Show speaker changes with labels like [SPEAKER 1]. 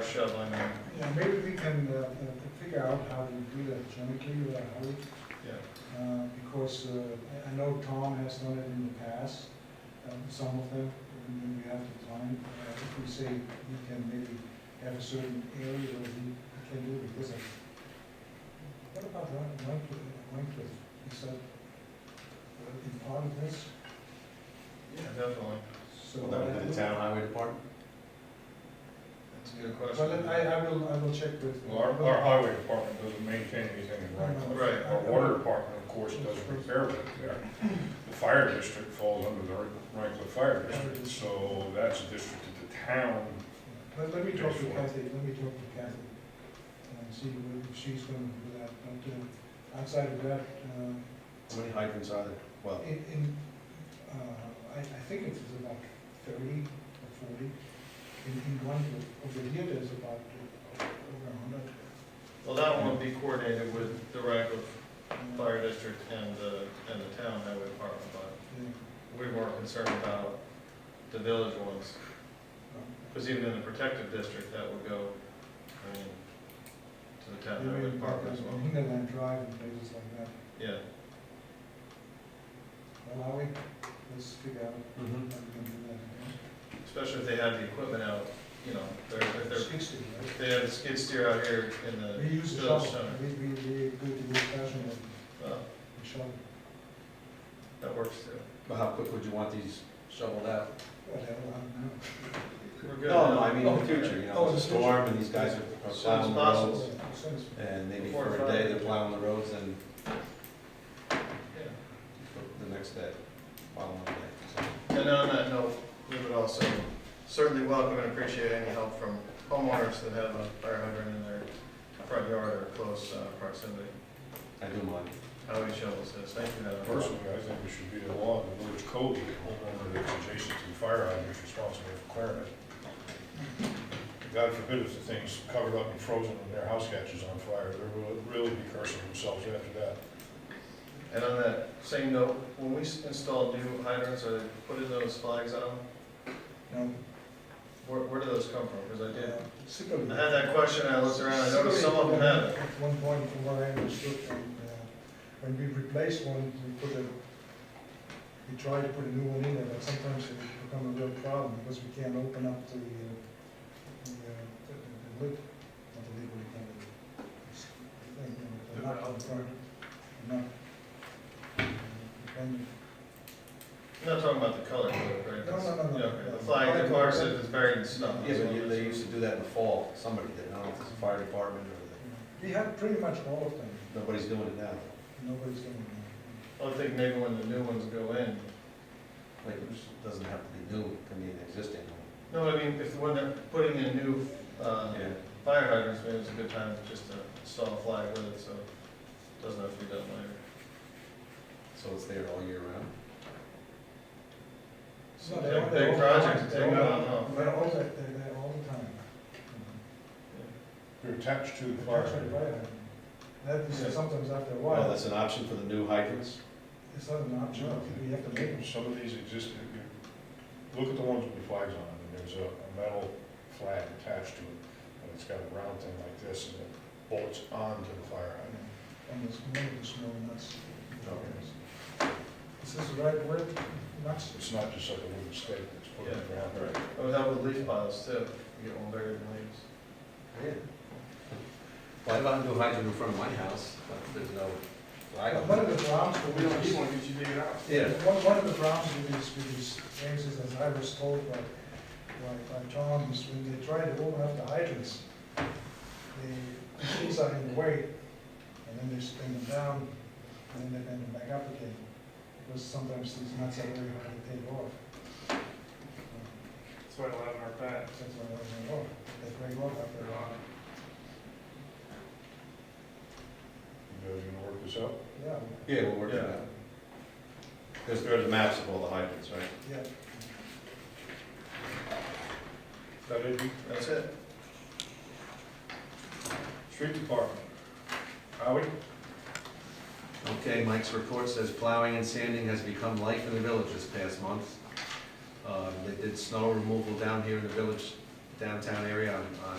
[SPEAKER 1] shoveling and,
[SPEAKER 2] Yeah, maybe we can uh, uh, figure out how to do that jointly with our Howie,
[SPEAKER 1] yeah,
[SPEAKER 2] uh, because uh, I- I know Tom has done it in the past, um, some of them, and then we have to find, uh, if we say he can maybe have a certain area where he can do it, because of, what about Ron- Wycliffe, Wycliffe, is that uh, in part of this?
[SPEAKER 1] yeah, definitely.
[SPEAKER 2] So
[SPEAKER 3] Well, that would be the town highway department?
[SPEAKER 1] That's a good
[SPEAKER 2] Well, I,
[SPEAKER 1] question.
[SPEAKER 2] I will, I will check with.
[SPEAKER 4] Well, Our, our highway department doesn't maintain anything in Wrangell.
[SPEAKER 1] Right.
[SPEAKER 4] Our water department, of course, does repair work there. The fire district falls under the Wrangell Fire District, so that's a district of the town.
[SPEAKER 2] Let, let me
[SPEAKER 4] Pay
[SPEAKER 2] talk to
[SPEAKER 4] for it.
[SPEAKER 2] Kathy, let me talk to Kathy, and see what if she's gonna do that, but, uh, outside of that, uh,
[SPEAKER 3] How many hydrants are there? Well,
[SPEAKER 2] in, in, uh, I, I think it's about thirty or forty. In, in one, group. over here, there's about uh, over a hundred.
[SPEAKER 1] Well, that one would be coordinated with the Ragland Fire District and the, and the town highway department, but
[SPEAKER 2] Yeah,
[SPEAKER 1] we were concerned about the village ones.
[SPEAKER 2] uh,
[SPEAKER 1] Because even in the protective district, that would go, I mean, to the town
[SPEAKER 2] you
[SPEAKER 1] highway
[SPEAKER 2] mean about
[SPEAKER 1] department as
[SPEAKER 2] the
[SPEAKER 1] well.
[SPEAKER 2] Hinterland Drive and places like that,
[SPEAKER 1] Yeah,
[SPEAKER 2] well, Howie, let's figure out
[SPEAKER 1] Mm-hmm.
[SPEAKER 2] how we can do that.
[SPEAKER 1] especially if they have the equipment out, you know, they're, if they're,
[SPEAKER 2] Sixty, right?
[SPEAKER 1] if they have the skid steer out here in the
[SPEAKER 2] We use the
[SPEAKER 1] village
[SPEAKER 2] shovel,
[SPEAKER 1] center.
[SPEAKER 2] we, we, we go to the fashion of
[SPEAKER 1] Well,
[SPEAKER 2] the shovel,
[SPEAKER 1] that works too.
[SPEAKER 3] but how quick would you want these shoveled out?
[SPEAKER 2] whatever, I don't know.
[SPEAKER 1] We're good.
[SPEAKER 3] No, no, I mean, in the
[SPEAKER 1] Okay.
[SPEAKER 3] future, you
[SPEAKER 2] Oh,
[SPEAKER 3] know,
[SPEAKER 2] in the
[SPEAKER 3] it's a storm and these guys are are
[SPEAKER 1] Soon as
[SPEAKER 3] plowing the
[SPEAKER 1] possible.
[SPEAKER 3] roads.
[SPEAKER 2] Sounds-
[SPEAKER 3] And maybe
[SPEAKER 1] Before
[SPEAKER 3] for a
[SPEAKER 1] Friday.
[SPEAKER 3] day, they're plowing the roads and
[SPEAKER 1] Yeah.
[SPEAKER 3] for the next day, plowing the day.
[SPEAKER 1] And on that note, we would also certainly welcome and appreciate any help from homeowners that have a fire hydrant in their front yard or close uh, proximity.
[SPEAKER 3] So I do mind.
[SPEAKER 1] How we shovels this, thank you, Madam. Clerk.
[SPEAKER 4] Personally, I think it should be the law of the village code, that homeowner that's adjacent to the fire hydrant is responsible for clearing it. God forbid if the thing's covered up and frozen and their house catches on fire, they're really be cursing themselves after that.
[SPEAKER 1] And on that same note, when we s- install new hydrants or they put in those flags on them,
[SPEAKER 2] No,
[SPEAKER 1] where, where do those come from? Because I did,
[SPEAKER 2] uh, Sibley.
[SPEAKER 1] I had that question, I looked around, I noticed some of them
[SPEAKER 2] Sibley,
[SPEAKER 1] have it.
[SPEAKER 2] At one point, from what I understood, and, uh, when we replaced one, we put a, we tried to put a new one in there, but sometimes it become a real problem, because we can't open up the, uh, the, uh, the- the- the lid, not the lid, what do you call it? It's- and, uh, The nut on the front, the nut. And
[SPEAKER 1] I'm not talking about the color, code, right?
[SPEAKER 2] No, no, no, no.
[SPEAKER 1] Yeah, okay. The flag, the bar says it's buried in snow.
[SPEAKER 3] Yeah, but you- they used to do that in the fall, somebody did, I don't know if it's the fire department or
[SPEAKER 2] We had pretty much all of them,
[SPEAKER 3] the, nobody's doing it now.
[SPEAKER 2] nobody's doing it.
[SPEAKER 1] I think maybe when the new ones go in,
[SPEAKER 3] Like, it doesn't have to be new, it can be an existing one.
[SPEAKER 1] No, I mean, if, when they're putting in new, uh, fire hydrants, maybe it's a good time just to install a flag with it, so it doesn't have to be done later.
[SPEAKER 3] So it's there all year round?
[SPEAKER 1] So
[SPEAKER 2] No,
[SPEAKER 1] big-
[SPEAKER 2] they're all- they're
[SPEAKER 1] Big
[SPEAKER 2] all
[SPEAKER 1] project,
[SPEAKER 2] fine.
[SPEAKER 1] to take
[SPEAKER 2] They're
[SPEAKER 1] out,
[SPEAKER 2] all-
[SPEAKER 1] no.
[SPEAKER 2] They're all, the- they're there all the time.
[SPEAKER 4] They're attached to the
[SPEAKER 2] They're
[SPEAKER 4] fire
[SPEAKER 2] actually
[SPEAKER 4] hydrant.
[SPEAKER 2] right at it. That
[SPEAKER 1] Yeah.
[SPEAKER 2] is sometimes after a
[SPEAKER 3] Well,
[SPEAKER 2] while,
[SPEAKER 3] that's an option for the new hydrants?
[SPEAKER 2] it's not an option, we have to make them.
[SPEAKER 4] Some of these exist, you- you look at the ones with the flags on them, and there's a a metal flag attached to it, and it's got a round thing like this, and it bolts onto the fire hydrant.
[SPEAKER 2] And it's more of the snow nuts. Is this the right word, nuts?
[SPEAKER 4] It's not just like a wooden stake that's put in the ground.
[SPEAKER 3] Right.
[SPEAKER 1] Oh, that with leaf piles too, you get one buried in leaves.
[SPEAKER 3] Yeah. Well, I don't do hydrant in front of my house, but there's no flag
[SPEAKER 2] One
[SPEAKER 3] on it.
[SPEAKER 2] of the problems for which is,
[SPEAKER 4] one, because you dig it out.
[SPEAKER 3] Yeah,
[SPEAKER 2] one, one of the problems with these, with these things is, as I was told by, by, by Tom, is when they try to open up the hydrants, the things are in the way, and then they spin them down, and then they bend them back up again, because sometimes these nuts are very hard to take off.
[SPEAKER 5] That's why I love our pet.
[SPEAKER 2] That's why they break off, they break off after a while.
[SPEAKER 4] You guys gonna work this out?
[SPEAKER 2] Yeah,
[SPEAKER 3] yeah, we'll work it out. Because there's maps of all the hydrants, right?
[SPEAKER 2] yeah.
[SPEAKER 4] That it?
[SPEAKER 1] That's it.
[SPEAKER 4] Street department. Howie?
[SPEAKER 3] Okay, Mike's report says plowing and sanding has become life in the village this past month. Uh, They did snow removal down here in the village, downtown area on on